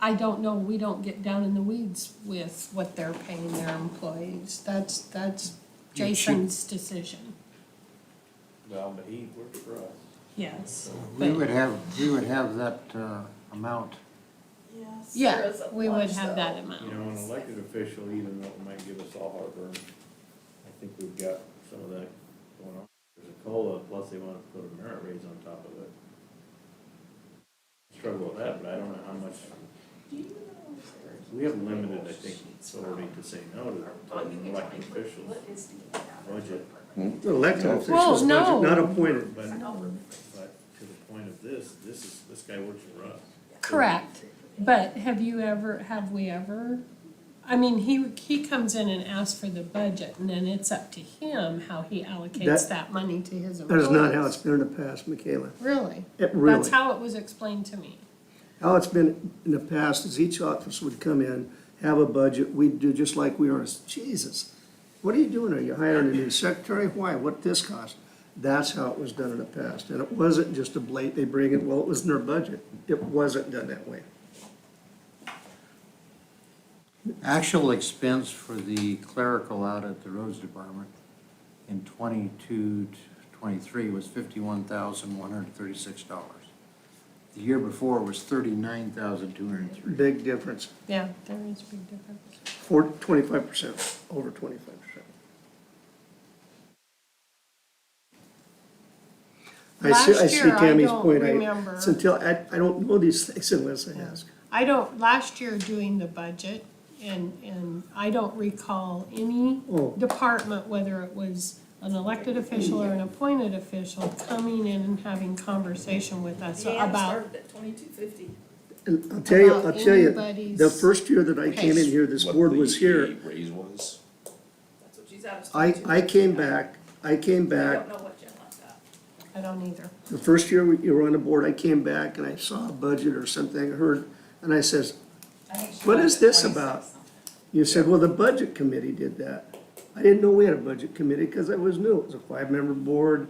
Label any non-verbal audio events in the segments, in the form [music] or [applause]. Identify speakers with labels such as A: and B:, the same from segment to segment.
A: I don't know, we don't get down in the weeds with what they're paying their employees. That's, that's
B: You should-
A: Jason's decision.
C: No, but he works for us.
A: Yes.
B: We
A: But-
B: would have, we would have that uh, amount.
D: Yes.
A: Yeah, we would have that
C: You know, an
A: amount.
C: elected official, even though it might give us all heartburn, I think we've got some of that going on. There's a COLA, plus they wanna put a merit raise on top of it. Struggle with that, but I don't know how much, we have limited, I think, authority to say no to an elected officials budget.
E: Elected
A: Well,
E: officials, budget,
A: no.
E: not appointed.
C: But, but to the point of this, this is, this guy works for us.
A: Correct, but have you ever, have we ever? I mean, he, he comes in and asks for the budget and then it's up to him how he allocates
E: That-
A: that money to his
E: That
A: employees.
E: is not how it's been in the past, Michaela.
A: Really?
E: It really.
A: That's how it was explained to me.
E: How it's been in the past is each office would come in, have a budget, we'd do just like we are, Jesus, what are you doing? Are you hiring a new secretary? Why? What this cost? That's how it was done in the past, and it wasn't just a blate, they bring it, well, it was in their budget. It wasn't done that way.
B: Actual expense for the clerical out at the roads department in 22, 23 was fifty-one thousand, one hundred and thirty-six dollars. The year before was thirty-nine thousand, two hundred and three.
E: Big difference,
A: Yeah, there is a big difference.
E: four, twenty-five percent, over twenty-five percent. I see, I
A: Last
E: see
A: year, I
E: Tammy's
A: don't
E: point.
A: remember.
E: It's until, I, I don't know these things unless I ask.
A: I don't, last year doing the budget, and, and I don't recall any
E: Oh.
A: department, whether it was an elected official or an appointed official, coming in and having conversation with us about,
D: started at twenty-two fifty.
E: And I'll tell you, I'll
A: about
E: tell you, the
A: anybody's
E: first year that I came in
A: pace.
E: here, this
F: what
E: board
F: the
E: was here,
F: Raise was.
D: That's what she's at.
E: I, I came back, I came
D: I don't
E: back,
D: know what Jen left out.
A: I don't either.
E: the first year we- you were on the board, I came back and I saw a budget or something, I heard, and I says, What is this about? you said, well, the budget committee did that. I didn't know we had a budget committee, cause I was new, it was a five-member board,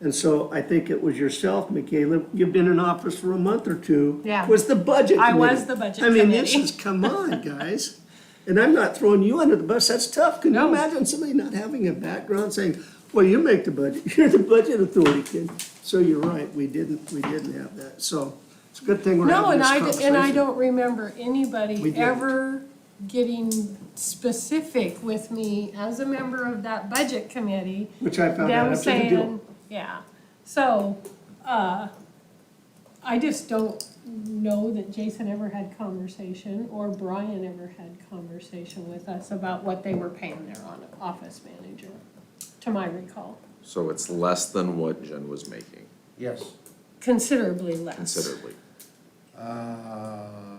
E: and so I think it was yourself, Michaela, you've been in office for a month or two.
A: Yeah.
E: Was the budget
A: I
E: committee.
A: was the budget
E: I mean, this
A: committee.
E: is, come on, guys, and I'm not throwing you under the bus, that's tough, can you
A: No.
E: imagine somebody not having a background saying, well, you make the budget, [laughs] you're the budget authority kid, so you're right, we didn't, we didn't have that, so, it's a good thing we're
A: No,
E: having
A: and
E: this
A: I, d-
E: conversation.
A: and I don't remember
E: We
A: anybody
E: didn't.
A: ever getting specific with me as a member of that budget committee.
E: Which I found out
A: them
E: after the deal.
A: saying, yeah, so, uh, I just don't know that Jason ever had conversation or Brian ever had conversation with us about what they were paying their on, office manager, to my recall,
F: So it's less than what Jen was making
B: Yes.
A: considerably less.
F: considerably,
B: Uh,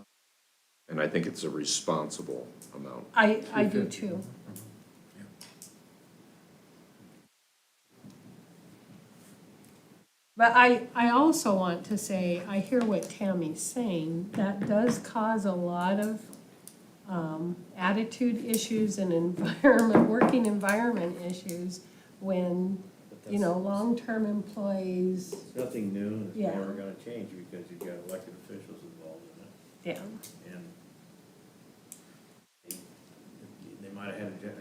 F: and I think it's a responsible amount.
A: I, I do too. But I, I also want to say, I hear what Tammy's saying, that does cause a lot of um, attitude issues and [laughs] environment, working environment issues when, you know, long-term employees,
C: It's Nothing new, and it's
A: Yeah.
C: never gonna change because you've got elected officials involved in it,
A: yeah,
C: and they- they might have had a gen-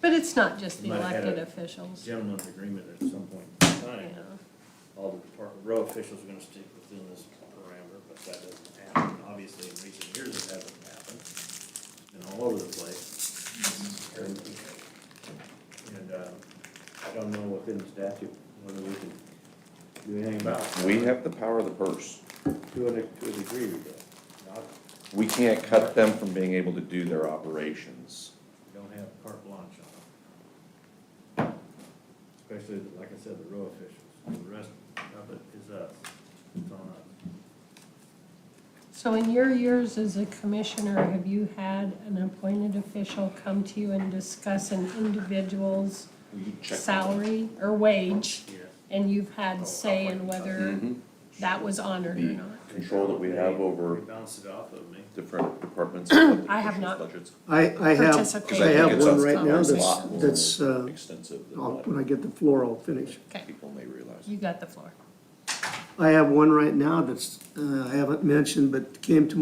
A: but it's not just the
C: Might have had
A: elected
C: a a
A: officials,
C: gentleman's agreement at some point in
A: yeah.
C: time. All the department, row officials are gonna stick within this parameter, but that doesn't happen, obviously, in recent years it hasn't happened, and all over the place. And, um, I don't know within the statute whether we can do anything about it.
G: We have the power of the purse.
C: To a, to a degree, we do. Not,
G: We can't cut them from being able to do their operations.
C: we don't have carte blanche on them. Especially, like I said, the row officials, the rest of it is us, it's on us.
A: So in your years as a commissioner, have you had an appointed official come to you and discuss an individual's
G: We can check. Oh,
A: salary or wage?
C: Yeah.
A: And you've had say in whether
G: Mhm.
A: that was honored or
G: The
A: not?
G: Control that we have
C: They
G: over
C: bounce it off of me.
G: different departments. and
A: [clears throat] I have not.
G: Budgets.
E: I, I have,
A: Participate
G: I
E: I have
G: think it's
E: one
G: a
E: right now that's,
G: lot more
E: that's, uh,
G: Extensive than
E: I'll-
G: what
E: when I get the floor, I'll finish.
A: Okay,
G: people may realize.
A: you got the floor.
E: I have one right now that's, uh, I haven't mentioned, but came to